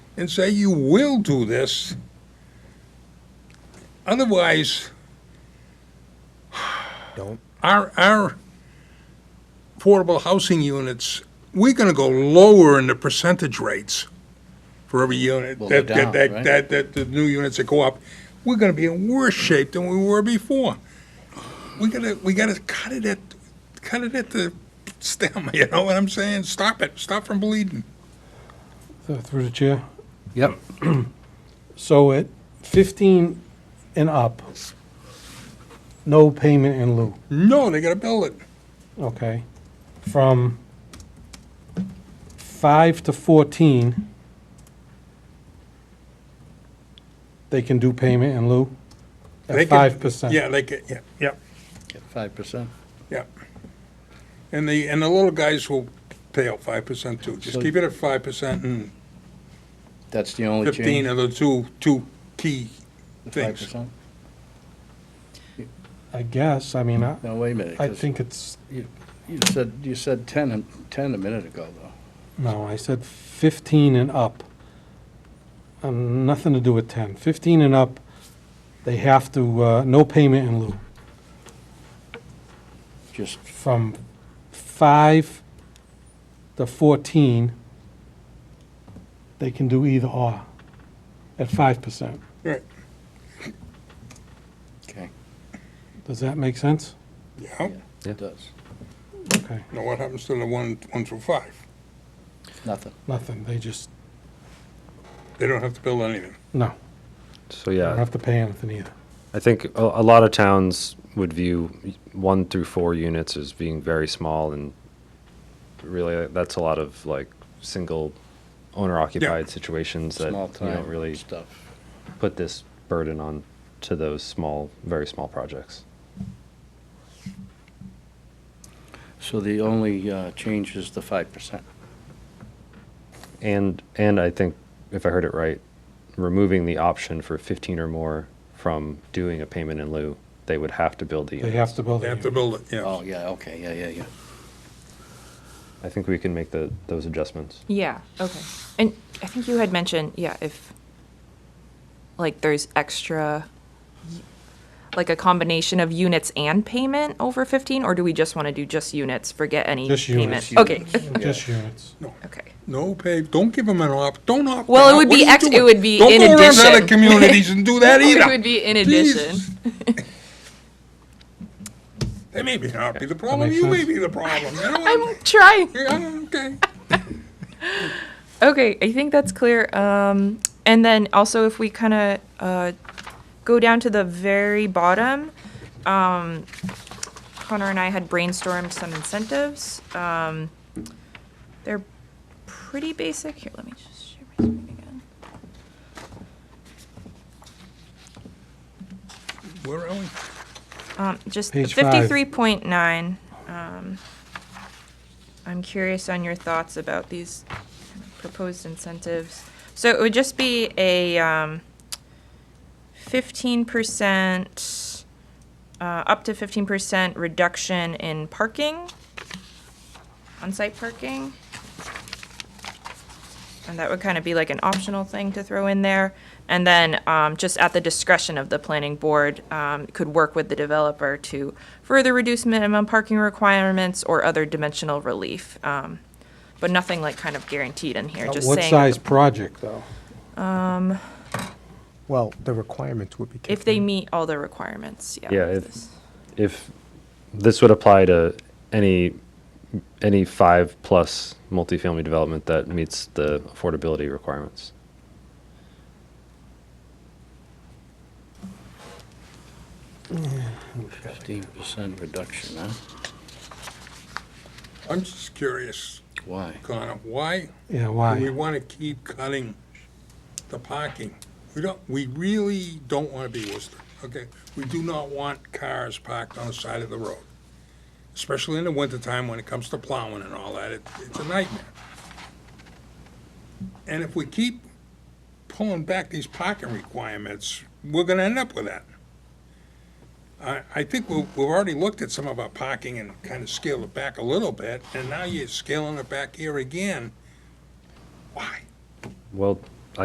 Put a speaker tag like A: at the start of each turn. A: and say, you will do this. Otherwise,
B: Don't.
A: our, our affordable housing units, we're gonna go lower in the percentage rates for every unit.
C: Will go
A: that that-
C: down,
A: that-
C: right?
A: That, that, the new units that go up, we're gonna be in worse shape than we were before. We gotta, we gotta cut it at, cut it at the stem, you know what I'm saying? Stop it, stop from bleeding.
D: Uh, Through the chair.
C: Yep.
D: So at 15 and up, no payment in lieu,
A: No, they gotta build it.
D: okay? From 5 to 14, they can do payment in lieu
A: They
D: at
A: can-
D: 5%.
A: Yeah, they could, yeah, yeah,
C: Five percent.
A: yeah. And the, and the little guys will pay out five percent too. Just
C: So-
A: keep it at five percent and
C: That's the only change.
A: 15 are the two, two key
C: the
A: things.
C: 5%?
D: I guess, I mean, I
C: No, wait a minute.
D: I
C: 'cause
D: think it's,
C: You said, you said ten, and- 10 a minute ago, though.
D: no, I said 15 and up. Um, Nothing to do with 10. 15 and up, they have to, uh, no payment in lieu.
C: Just,
D: from five to fourteen, they can do either or at five percent.
A: Right,
C: okay,
D: Does that make sense?
A: yeah.
C: it does.
D: Okay,
A: Now what happens to the one, one through five?
C: Nothing.
D: nothing, they just,
A: They don't have to build anything.
D: no,
E: So
D: don't
E: yeah,
D: have to pay anything either.
E: I think a, a lot of towns would view y- one through four units as being very small, and really uh, that's a lot of like single owner occupied situations that
C: Small
E: you don't
C: time
E: really
C: stuff.
E: put this burden on to those small, very small projects.
C: So the only uh, change is the five percent.
E: And and I think if I heard it right, removing the option for 15 or more from doing a payment in lieu, they would have to build the
D: They
E: units.
D: have to build
A: They have to
D: it.
A: build it, yeah.
C: Oh, yeah, okay, yeah, yeah, yeah.
E: I think we can make the those adjustments.
F: Yeah, okay. And I think you had mentioned, yeah, if, like, there's extra, like, a combination of units and payment over 15, or do we just want to do just units, forget any
D: Just
F: payment?
D: units.
F: Okay,
D: Just units.
F: okay.
A: No pay, don't give them an op, don't opt
F: Well, it
A: out.
F: would
A: What
F: be
A: are you
F: ex- it
A: doing?
F: would be in
A: Don't go around to other
F: addition.
A: communities and do that either.
F: It would be in addition.
A: Jesus. They may be not be the problem,
D: makes
A: you may
D: sense.
A: be the problem, you know what I'm
F: I'm trying.
A: Yeah, okay.
F: Okay, I think that's clear. Um, and then also if we kind of, uh, go down to the very bottom, um, Connor and I had brainstormed some incentives. Um, they're pretty basic. Here, let me just share my screen again.
A: Where are we?
F: Um, just
D: Page five.
F: fifty-three point nine. Um, I'm curious on your thoughts about these proposed incentives. So it would just be a, um, fifteen percent, uh, up to fifteen percent reduction in parking, on-site parking. And that would kind of be like an optional thing to throw in there. And then, um, just at the discretion of the planning board, um, could work with the developer to further reduce minimum parking requirements or other dimensional relief. Um, but nothing like kind of guaranteed in here,
D: Uh,
F: just saying. Um,
D: What size project, though?
B: Well, the requirements would be.
F: If
B: kicked
F: they
B: in.
F: meet all the requirements, yeah.
E: Yeah,
F: of
E: if-
F: this.
E: If this would apply to any any five plus multifamily development that meets the affordability requirements.
C: Fifteen percent reduction, huh?
A: I'm just curious,
C: Why?
A: Connor, why We
D: Yeah, why?
A: want to keep cutting the parking. We don't, we really don't want to be Worcester, okay? We do not want cars parked on the side of the road, especially in the wintertime when it comes to plowing and all that. It- It's a nightmare. And if we keep pulling back these parking requirements, we're going to end up with that. I, I think we've, we've already looked at some of our parking and kind of scaled it back a little bit, and now you're scaling it back here again. Why?
E: Well,